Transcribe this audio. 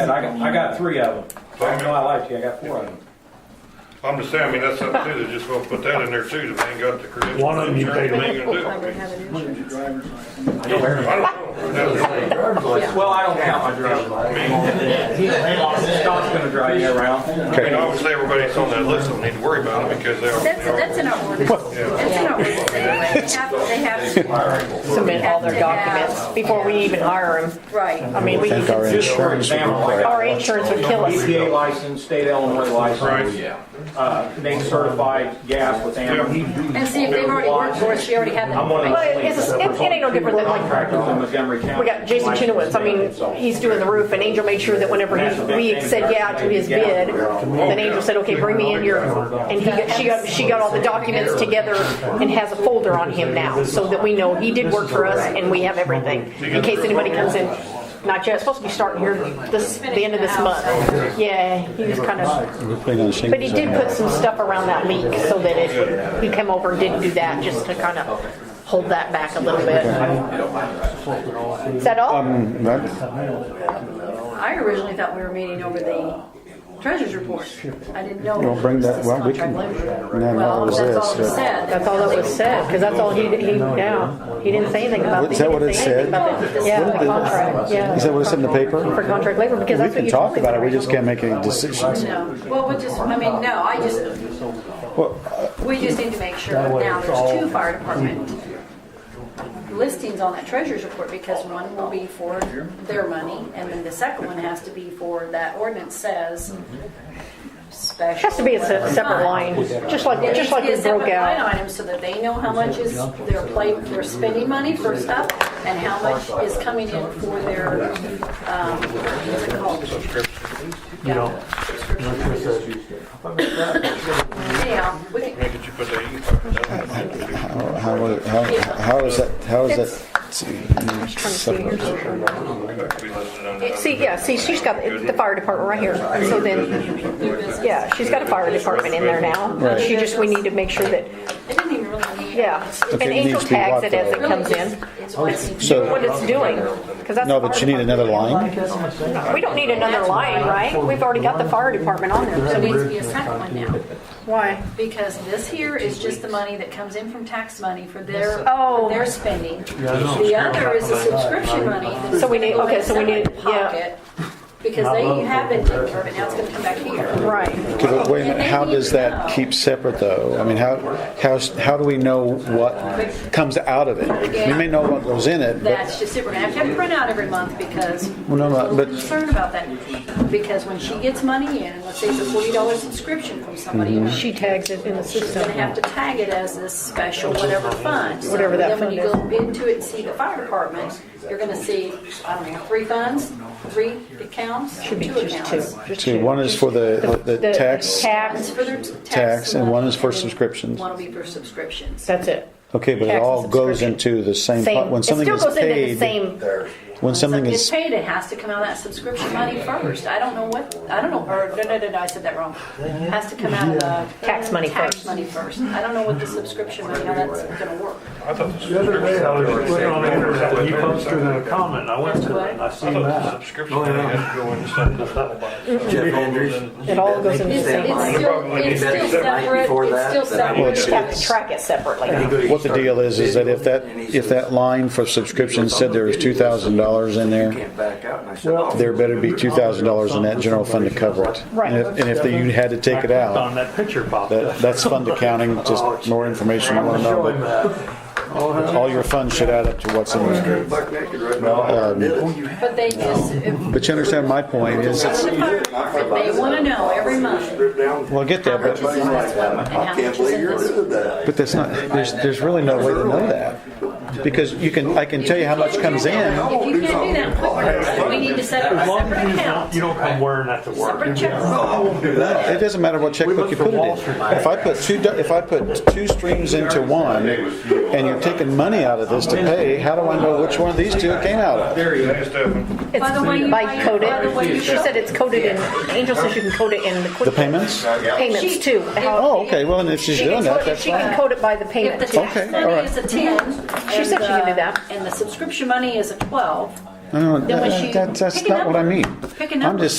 And I got, I got three of them. I know I liked you, I got four of them. I'm just saying, I mean, that's something too, they're just gonna put that in there too, if they ain't got the credentials. One of them you paid They ain't gonna do it. I would have an insurance. I don't know. Well, I don't count my driver's license. Scott's gonna drive you around. I mean, obviously, everybody that's on that list don't need to worry about it because they are. That's, that's in our ordinance. That's in our ordinance anyway. They have, they have to. submit all their Have to have- documents before we even hire them. I Right. mean, we, think our Just for insurance would example, require. like our insurance would kill us. EPA license, state Illinois license. Right. Uh, name certified gas with AMP. And see, if they've already worked for us, we already have that I'm one of Well, information. the- it's, it it ain't no different than like, Contractors in Montgomery County. we got Jason Chinowitz, I mean, he's doing the roof, and Angel made sure that whenever he, we said yeah to his bid, then Angel said, okay, bring me in your, and he, got- she got, she got all the documents together and has a folder on him now, so that we know he did work for us, and we have everything, in case anybody comes in. Not yet, it's supposed to be starting here this, the end of this month. Yeah, he was kind of We're putting on But he shingles did on put that. some stuff around that leak so that it, would- he came over and didn't do that, just to kind of hold that back a little bit. Is that all? Um, that- I originally thought we were meeting over the treasurer's report. I didn't know. Well, bring that- this well, we contract can- labor. no, no, Well, it was that's all this, it yeah. said. That's all that was said, because that's all he, he, yeah, he didn't say anything about the. Is that what it said? Yeah, What the did it- contract, yeah. Is that what it said in the paper? For contract labor, because We that's what can you talk told me. about it, we just can't make any decisions. No, well, we just, I mean, no, I just, we just need to make sure that now there's two fire department listings on that treasurer's report because one will be for their money and then the second one has to be for that ordinance says It Mm-hmm. special. Has to be a se- separate fund. line, just like, There needs just to like be a we broke separate line out. item so that they know how much is their plate for spending money for stuff and how much is coming in for their, um, what's it called? Yeah. Anyhow, we can- Make it you put that. How, how, how- how is that, how is that separate? See, yeah, see, she's got the fire department right here, so then, yeah, she's got a fire department in there now. Right. She just, we need to make sure that it didn't even really need. Yeah, and it Angel needs to be tags what, it as it though? comes in, It's what it's- So- what it's doing, 'cause that's. No, the but you fire need another line? department. We don't need another line, right? We've already got the fire department on there, There so needs to be a second one now, why? because this here is just the money that comes in from tax money for their, Oh. for their spending. The other is the subscription money. that's So we gonna need- go in okay, so we need- somebody's yeah. pocket, Because they have been taking care of it, now it's gonna come back here. Right, Okay, but wait a minute, how does that keep separate though? I mean, how, how, how do we know what comes out of it? We may know what goes in it, but That's just it, we're gonna have to have it print out every month because Well, we're no, a no, little but- concerned about that. Because when she gets money in, and let's say it's a forty dollar subscription from somebody, Mm-hmm. and she tags it in the she's gonna system. have to tag it as this special whatever fund. So Whatever that then fund When you go into it and see the fire department, you're gonna see, I don't know, three funds, three accounts, Should be two just two, accounts. just see, one is for the, the tax. Tax, For their Tax, and one is for money, and subscriptions. One will be for subscriptions. that's it. Okay, but it Tax and all goes subscription. into the same, pot. Same, when it still something is goes into the paid, same, when something Something is gets paid, it has to come out of that subscription money first. I don't know what, I don't know, or, no, no, no, no, I said that wrong. It Has to come out of the. Tax money Tax first. money first. I don't know what the subscription money, how that's gonna work. I thought The other day, I was putting on the internet, and he posted the a comment, and I went to it, and I I seen thought the that. subscription thing had to go into something that's not about itself. it all goes into the It's, same it's line. still, it's still separate, it's still Well, separate. You have to track it separately. What the deal is, is that if that, if that line for subscription said there was two thousand dollars in there, "Oh, there better be two thousand dollars in that general fund to cover it. Right. And if- and if you had to take it On out, that picture popped up. that, that's fund accounting, just more information you wanna Show him know, that. but all your funds should add up to what's in there. um, Oh, But they just, if, But you understand my point is, it's, It's the fire department. They want to know every month well, I get how that, much is in but, this one and how I can't much is believe in you're this one. doing that. but that's not, there's, there's really no way to know that. Because you can, I can tell you how much comes in, If you can't do that, quit working. So we need to set up a As long separate as you don't, account, you don't come wearing that to work. separate checks. No, I won't do that. It doesn't matter what checkbook you put it in. If I put two, do- if I put two streams into one, and you're taking money out of this to pay, how do I know which one of these two it came out of? There you Hey, Stephen, It's By the way, you- by by the way, you coded, she show- said it's coded in, Angel says you can code it in the The quick payments? payments too. how- Oh, okay, well, then if she's She can doing that, code- that's She fine. can code it by the If the payment too. tax all money right. is a ten. She and said she can the- do that. And the subscription money is a twelve, No, no, Then was that- she that's, that's picking not what I number? mean. Pick a I'm number. just